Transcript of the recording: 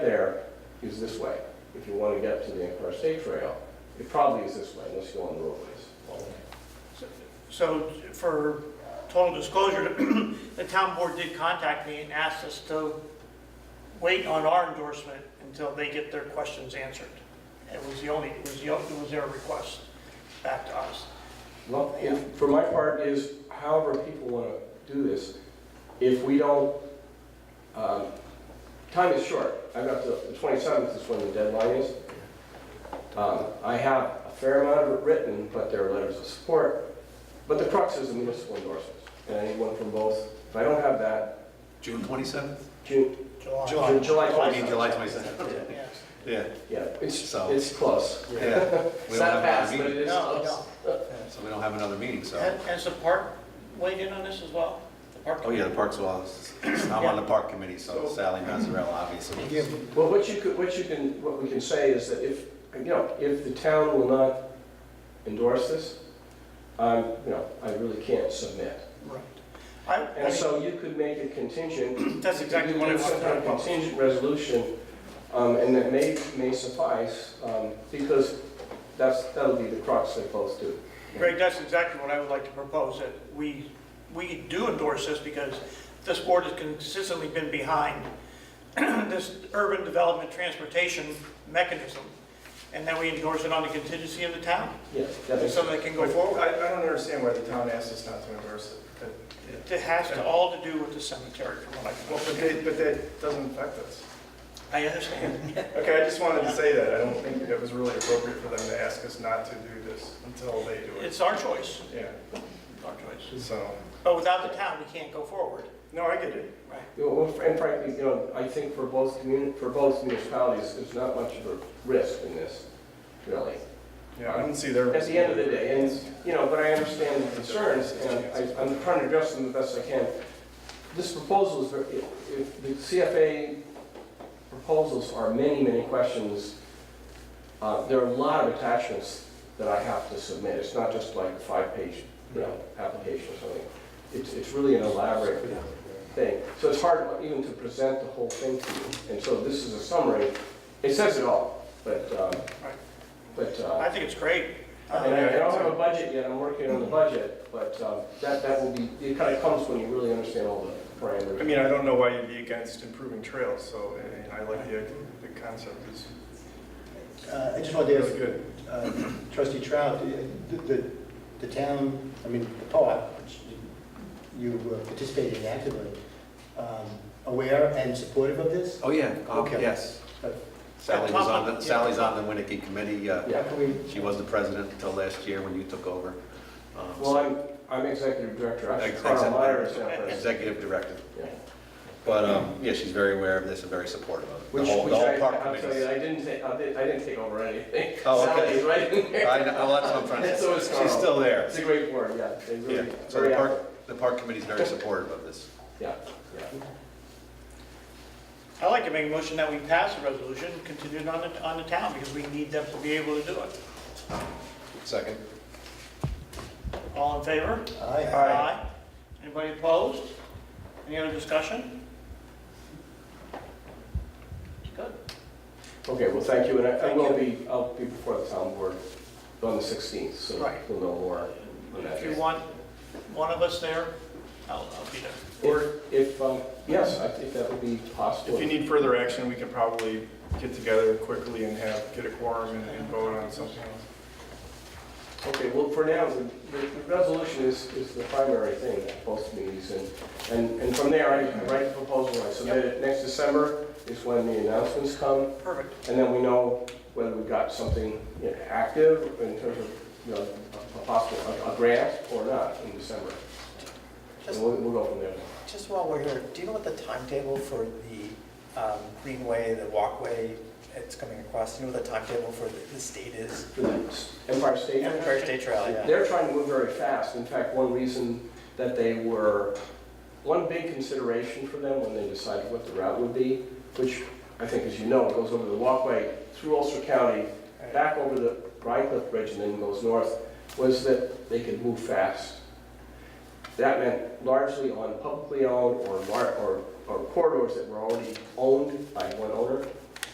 is this way. If you want to get to the Empire State Trail, it probably is this way unless you go on the roadways all the way. So for total disclosure, the town board did contact me and asked us to wait on our endorsement until they get their questions answered. It was the only, it was the, it was their request back to us. Well, and for my part is however people want to do this, if we don't, um, time is short. I've got the the 27th is when the deadline is. Um, I have a fair amount of it written, but there are letters of support. But the crux is the municipal endorsements, and I need one from both. If I don't have that, June 27th? June, July. July Oh, I mean, 27th. July 27th. Yes. Yeah, Yeah, it's, So- it's close. yeah. It's We don't not have fast, another but it meeting, is No, we close. so we don't have another meeting, so. And, and the park weighed in on this as well? The park? Oh, yeah, the Parks, well, it's- I'm on the Park Committee, so Sally Mazzarella, obviously. Well, what you could, what you can, what we can say is that if, you know, if the town will not endorse this, I'm, you know, I really can't submit. Right. I, I And mean, so you could make a contingent. that's exactly what I you could do some kind wanted to of talk about. Contingent resolution, um, and that may, may suffice, um, because that's, that'll be the crux they both do. Greg, that's exactly what I would like to propose, that we, we do endorse this because this board has consistently been behind this urban development transportation mechanism, and then we endorse it on the contingency of the town, Yeah, that makes so sense. that it can go forward. I, I don't understand why the town asked us not to endorse it. That- It has to, all to do with the cemetery, from what I can Well, but that, but that doesn't affect us. I understand. Okay, I just wanted to say that. I don't think that was really appropriate for them to ask us not to do this until they do it. It's our choice, Yeah, our choice. so, But without the town, we can't go forward. no, I get it. Right. You know, And frankly, you know, I think for both communi, for both municipalities, there's not much of a risk in this, really. Yeah, I don't see their. at the end of the day, and, you know, but I understand the concerns, and I- I'm trying to address them the best I can. This proposal is, ver- if- if the CFA proposals are many, many questions, uh, there are a lot of attachments that I have to submit. It's not just like a five-page, you know, application or something. It's, it's really an elaborate thing. So it's hard even to present the whole thing to you. And so this is a summary. It says it all, but, um, Right. but. uh, I think it's great. Um, and I I don't have a budget yet, I'm working on the budget, but um, that, that will be, it kind of comes when you really understand all the parameters. I mean, I don't know why you'd be against improving trails, so, I mean, I like the, the concept is Uh, I just wanted really to good. ask uh, trustee Trout, uh, the- the, the town, I mean, the co-op, which you uh, participated in actively, um, aware and supportive of this? Oh, yeah, um, Okay. yes. Uh, Sally was on, the Sally's on the Winnicke Committee. uh, How can we, She was the president until last year when you took over. um, Well, I'm, I'm executive director, I should Ex- Carl executive. Meyer is not president. Executive director. Yeah. But, um, yeah, she's very aware of this and very supportive of it. The Which, whole, which the I, whole park I'll tell you, committee. I didn't take, I didn't, I didn't take over anything. Oh, okay. Sally's right in there. I know, well, that's what I'm trying to That's always say. She's still there. It's a great board, yeah, they Yeah, really, so very the active, park, the park committee's very supportive of this. yeah, yeah. I'd like to make a motion that we pass the resolution, continue it on the, on the town, because we need them to be able to do it. Second? All in favor? aye, Anybody opposed? Any other discussion? Good. Okay, well, thank you, and I- I Thank will you. be, I'll be before the town board on the 16th, so Right. we'll know more. on that If you day. want one of us there, I'll, I'll be there. Or if, um, yes, I think that would be possible. If you need further action, we can probably get together quickly and have, get a quorum and and vote on something else. Okay, well, for now, the, the the resolution is, is the primary thing at both meetings, and, and, and from there, I I write the proposal, I submit it, next December is when the announcements come, Perfect. and then we know whether we got something you know, active in terms of, you know, a- a possible, a- a grant or not in December. And Just, we'll, we'll go from there. just while we're here, do you know what the timetable for the um, greenway, the walkway it's coming across? Do you know what the timetable for the- the state is? For the Empire State. Empire State Trail, yeah. They're trying to move very fast. In fact, one reason that they were, one big consideration for them when they decided what the route would be, which I think, as you know, goes over the walkway through Ulster County, back over the Rhinecliff Bridge and then goes north, was that they could move fast. That meant largely on publicly owned or, lar- or or corridors that were already owned by one owner.